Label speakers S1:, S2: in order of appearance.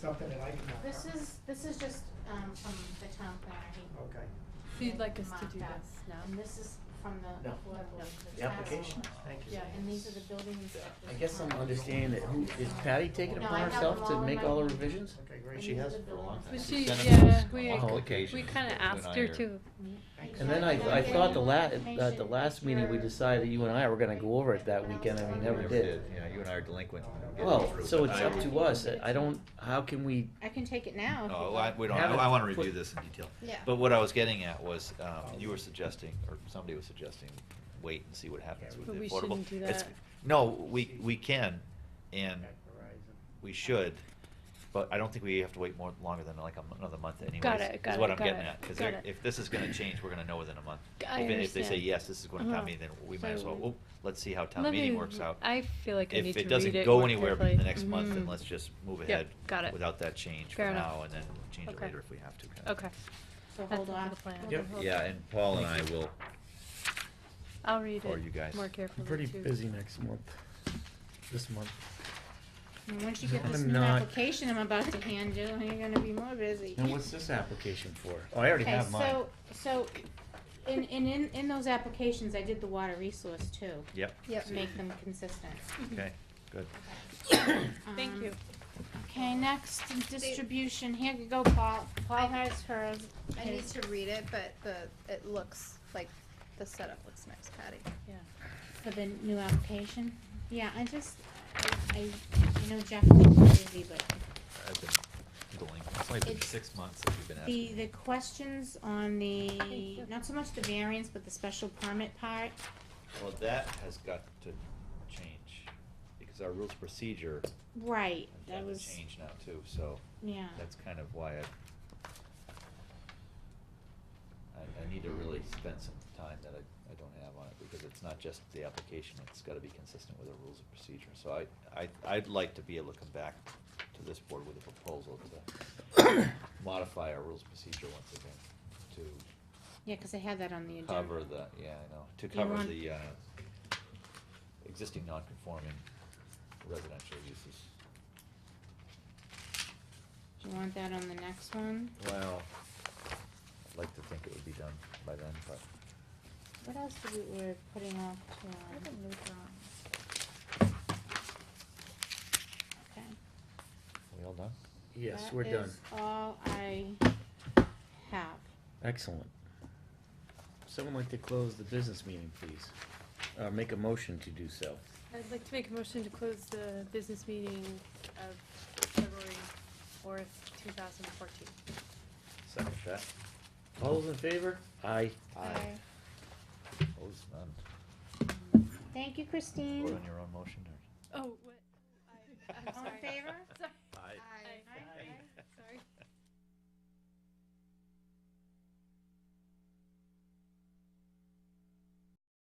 S1: something that I did not
S2: This
S1: cover.
S2: is, this is just, um, from the town planner. He-
S1: Okay.
S3: So you'd like us to
S2: Marked
S3: do
S2: up.
S3: this now?
S2: And this is from the
S4: No.
S2: affordable,
S3: No.
S2: the
S4: The application,
S2: tax.
S4: thank you.
S3: Yeah.
S2: And these are the building inspectors.
S4: I guess I'm
S2: Um,
S4: understanding that who, is Patty taking it
S2: No, I
S4: upon
S2: have
S4: herself
S2: them
S4: to
S2: all in
S4: make
S2: my
S4: all the
S2: email.
S4: revisions?
S1: Okay,
S2: And
S1: great.
S4: She
S2: these
S4: has
S2: are the
S4: for a long
S2: building
S4: time.
S3: But
S2: inspectors.
S3: she,
S5: Send us
S3: yeah,
S5: those
S3: we,
S5: on
S4: Oh, okay.
S3: we
S5: applications
S3: kinda
S5: that you
S3: asked
S5: I
S3: her
S5: are-
S3: to,
S4: And then I, I thought the la, at the last meeting, we decided that you and I were gonna go over it that weekend and we never
S5: Never
S4: did.
S5: did, yeah, you and I are delinquent. in getting
S4: Well,
S5: through,
S4: so
S5: but
S4: it's
S5: I-
S4: up to us, I I don't, how can we,
S2: I can take it now. if you'd
S5: No, Oh, I,
S2: like.
S5: we don't,
S4: Have it
S5: I wanna
S4: put-
S5: review this in detail.
S2: Yeah.
S5: But what I was getting at was, um, you were suggesting, or somebody was suggesting, wait and see what happens with the
S3: But
S5: affordable.
S3: we shouldn't do
S5: It's-
S3: that.
S5: No, we, we can, and
S1: At Verizon.
S5: we should, but I don't think we have to wait more, longer than like a m- another month anyways.
S3: Got it, got
S5: Is
S3: it,
S5: what I'm
S3: got
S5: getting
S3: it,
S5: at, cause
S3: got
S5: they're-
S3: it.
S5: if this is gonna change, we're gonna know within a month.
S3: I
S5: If it- If they say,
S3: understand.
S5: yes, this is going to
S3: Uh-huh.
S5: town meeting, then we might as well,
S3: So-
S5: well, let's see how town
S3: Let
S5: meeting
S3: me-
S5: works out.
S3: I feel like I need to
S5: If it
S3: read
S5: doesn't
S3: it
S5: go
S3: more
S5: anywhere
S3: carefully.
S5: in the next month, then
S3: Mhm.
S5: let's just move
S3: Yep,
S5: ahead.
S3: got it.
S5: Without that change for
S3: Fair enough.
S5: now, and then change it
S3: Okay.
S5: later if we have to. kind of
S3: okay,
S2: So
S3: That's
S2: hold
S3: under
S2: on.
S3: the plan.
S4: Yep.
S3: Hold
S5: Yeah,
S3: on.
S5: and Paul and I will,
S3: I'll read
S5: Or you
S3: it
S5: guys.
S3: more
S5: I'm
S3: carefully
S4: I'm
S3: too.
S4: pretty busy next month, this month.
S2: And once you get this
S4: I'm
S2: new
S4: not-
S2: application I'm about to hand you, you're gonna be more busy.
S4: And what's this application for? Oh, I already have mine.
S2: Okay, so, so, in, in, in, in those applications, I did the water resource too.
S5: yep,
S3: Yep.
S2: To make them consistent.
S5: okay, good.
S3: Thank
S2: Um,
S3: you.
S2: Okay, next, distribution, here you go, Paul, Paul has hers.
S6: I need to read it, but the, it looks like, the setup looks nice, Patty.
S3: Yeah.
S2: For the new application? Yeah, I just, I, I I know Jeff is busy, but
S5: I've been delinquent, it's only been
S2: It's-
S5: six months that you've been
S2: the, the
S5: asking.
S2: questions on the,
S3: Hey,
S2: not so much the variance, but the special permit part,
S5: Well, that has got to change, because our rules procedure
S2: right,
S5: has
S2: that
S5: got to
S2: was,
S5: change now too, so
S2: yeah.
S5: that's kind of why I, I, I need to really spend some time that I, I don't have on it, because it's not just the application, it's gotta be consistent with the rules of procedure. So I, I, I'd like to be able to come back to this board with a proposal to modify our rules of procedure once again,
S2: Yeah, 'cause I had that on the
S5: to
S2: agenda.
S5: cover the, yeah, I know, to
S2: You
S5: cover
S2: want-
S5: the, uh, existing non-conforming residential uses.
S2: Do you want that on the next one?
S5: Well, I'd like to think it would be done by then, but
S2: What else did we, we're putting off to, um, okay.
S5: are we all done?
S4: Yes,
S2: That
S4: we're done.
S2: is all I have.
S4: Excellent. Someone like to close the business meeting, please, or make a motion to do so.
S3: I'd like to make a motion to close the business meeting of February fourth, two thousand fourteen.
S5: Second that.
S4: All those in favor? Aye.
S5: Aye. Opposed, none.
S2: Thank you,
S5: Vote
S2: Christine.
S5: on your own motion, or?
S3: Oh,